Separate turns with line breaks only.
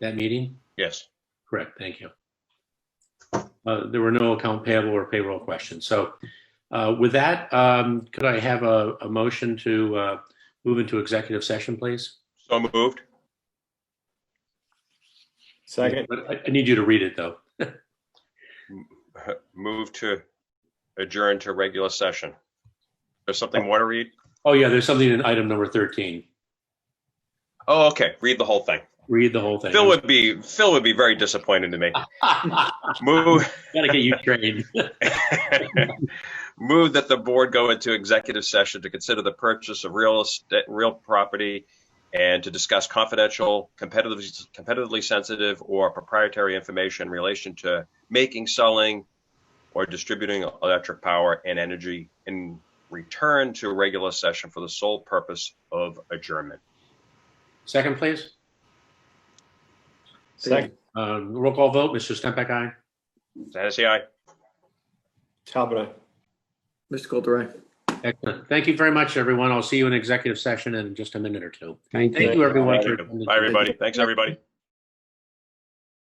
that meeting?
Yes.
Correct, thank you. Uh, There were no account payable or payroll questions. So uh, with that, um, could I have a, a motion to uh, move into executive session, please?
So moved.
Second,
But I- I need you to read it, though.
Move to adjourn to regular session. There's something more to read?
Oh, yeah, there's something in item number 13.
Oh, okay. Read the whole thing.
Read the whole thing.
Phil would be Phil would be very disappointed in me.
Gotta
Move
get you trained.
move that the board go into executive session to consider the purchase of real estate, real property, and to discuss confidential, competitively competitively sensitive, or proprietary information in relation to making, selling, or distributing electric power and energy in return to a regular session for the sole purpose of adjournment.
Second, please.
second,
Uh, Roll call vote, Mr. Stempak, aye?
Hennessy, aye.
Talbot, aye.
Mr. Caldera.
Excellent. Thank you very much, everyone. I'll see you in executive session in just a minute or two.
Thank
Thank you, everyone. for
Bye, everybody. Thanks, everybody.